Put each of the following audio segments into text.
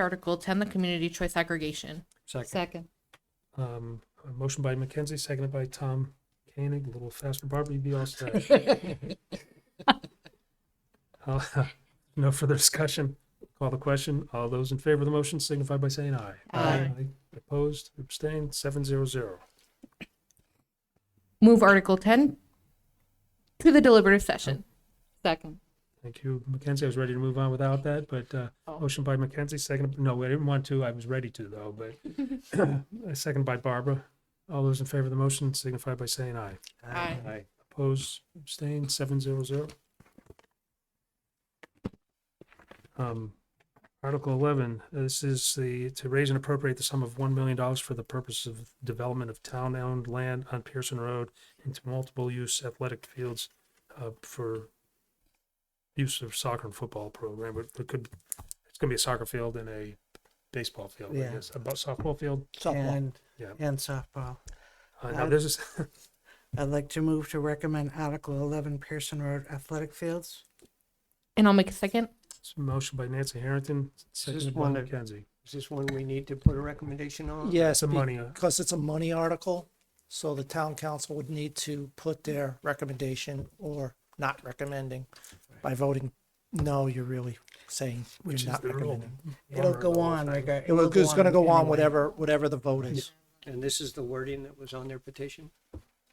Article ten, the community choice aggregation. Second. Second. Um, a motion by Mackenzie, seconded by Tom Koenig, a little faster. Barbara, you'd be all set. Uh, No further discussion. Call the question. All those in favor of the motion signify by saying aye. Aye. Opposed, abstained, seven zero zero. Move Article ten to the deliberative session. Second. Thank you, Mackenzie. I was ready to move on without that, but uh, Oh. motion by Mackenzie, second, no, I didn't want to. I was ready to though, but a second by Barbara. All those in favor of the motion signify by saying aye. Aye. Aye. Opposed, abstained, seven zero zero. Um, Article eleven, this is the, to raise and appropriate the sum of one million dollars for the purpose of development of town-owned land on Pearson Road into multiple-use athletic fields uh, for use of soccer and football program, but it could, it's gonna be a soccer field and a baseball field, I Yeah. guess, a bu- softball field. Softball. and Yeah. and softball. Uh, now I'd- this is, I'd like to move to recommend Article eleven Pearson Road Athletic Fields. And I'll make a second. it's a motion by Nancy Harrington, seconded by one- Mackenzie. Is this one we need to put a recommendation on? It's Yes. a money, uh, Because it's a money article, so the town council would need to put their recommendation or not recommending. By voting no, you're really saying you're which is not the rule. recommending. It'll go on, like, uh, It will, it's gonna go on whatever, whatever the vote is. And this is the wording that was on their petition?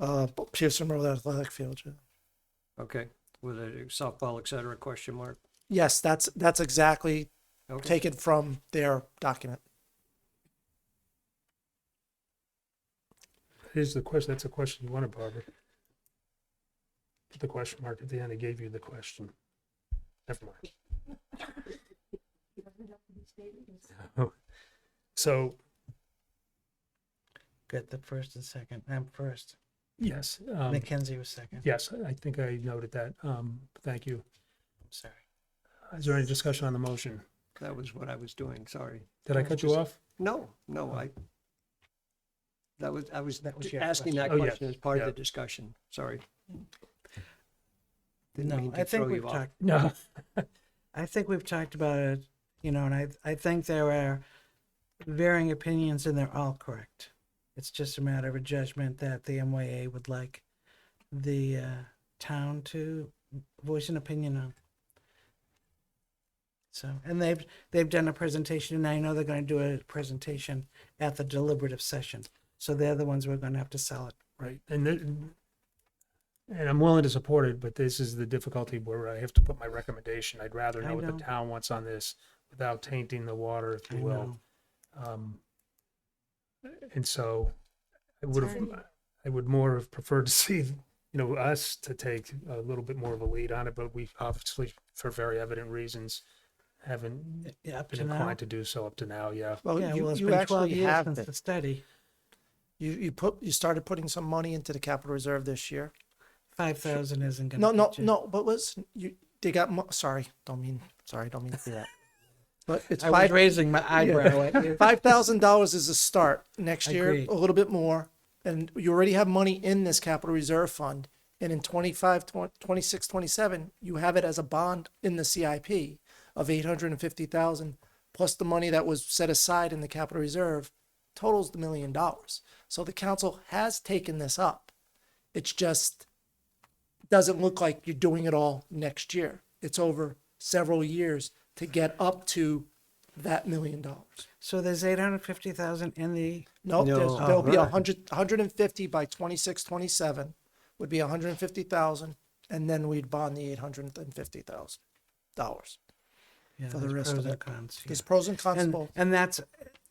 Uh, Pearson Road Athletic Field. yeah. Okay, with a softball, et cetera, question mark. Yes, that's, that's exactly Okay. taken from their document. Here's the question, that's a question you wanted, Barbara. Put the question mark at the end, I gave you the question. Never mind. No. So, Good, the first and second, I'm first. yes, um, Mackenzie was second, yes, I think I noted that. Um, thank you. I'm sorry. Is there any discussion on the motion? That was what I was doing, sorry. Did I cut you off? No, no, I, that was, I was That was your asking that question. Oh, yeah, question as part of yeah. the discussion, sorry. Didn't No, mean to I think throw we've you off. talked, No. I think we've talked about it, you know, and I, I think there are varying opinions and they're all correct. It's just a matter of a judgment that the MYA would like the uh, town to voice an opinion on. So, and they've, they've done a presentation and I know they're going to do a presentation at the deliberative session. So they're the ones we're going to have to sell it. Right, and then, and I'm willing to support it, but this is the difficulty where I have to put my recommendation. I'd rather I know what the know. town wants on this without tainting the water, if I you will. know. Um, and so I would have, I would more have preferred to see, you know, us to take a little bit more of a lead on it, but we obviously, for very evident reasons, haven't Yeah, up been to now. inclined to do so up to now, yeah. Well, Yeah, well, Oh, you, it's you been 12 actually years have since it. the study, You, you put, you started putting some money into the capital reserve this year. 5,000 isn't going to No, no, no, but listen, you, they got, mo- sorry, don't mean, sorry, don't mean to do that. But it's I was five, raising my eyebrow at you. five thousand dollars is a start. Next I year, agree. a little bit more. And you already have money in this capital reserve fund. And in 25, 20 26, 27, you have it as a bond in the CIP of eight hundred and fifty thousand, plus the money that was set aside in the capital reserve totals the million dollars. So the council has taken this up. It's just doesn't look like you're doing it all next year. It's over several years to get up to that million dollars. So there's eight hundred fifty thousand in the, No, there's, No. there'll be Oh, a right. hundred, hundred and fifty by twenty-six, twenty-seven would be a hundred and fifty thousand, and then we'd bond the eight hundred and fifty thousand dollars. yeah, For the there's rest of pros and it. cons, yeah. There's pros and cons to And, both. and that's,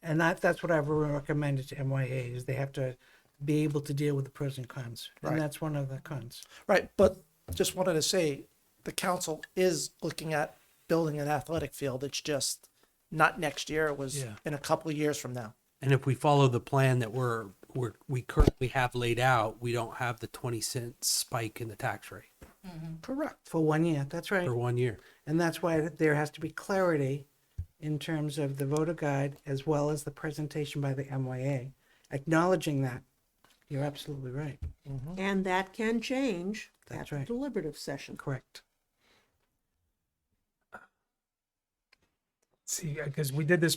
and that, that's what I've recommended to MYA is they have to be able to deal with the pros and cons. Right. And that's one of the cons. Right, but just wanted to say, the council is looking at building an athletic field. It's just not next year. It was Yeah. in a couple of years from now. And if we follow the plan that we're, we're, we currently have laid out, we don't have the 20 cent spike in the tax rate Correct. For one year, that's right. for one year. And that's why there has to be clarity in terms of the voter guide as well as the presentation by the MYA, acknowledging that. You're absolutely right. And that can change at That's the right. deliberative session. Correct. See, because we did this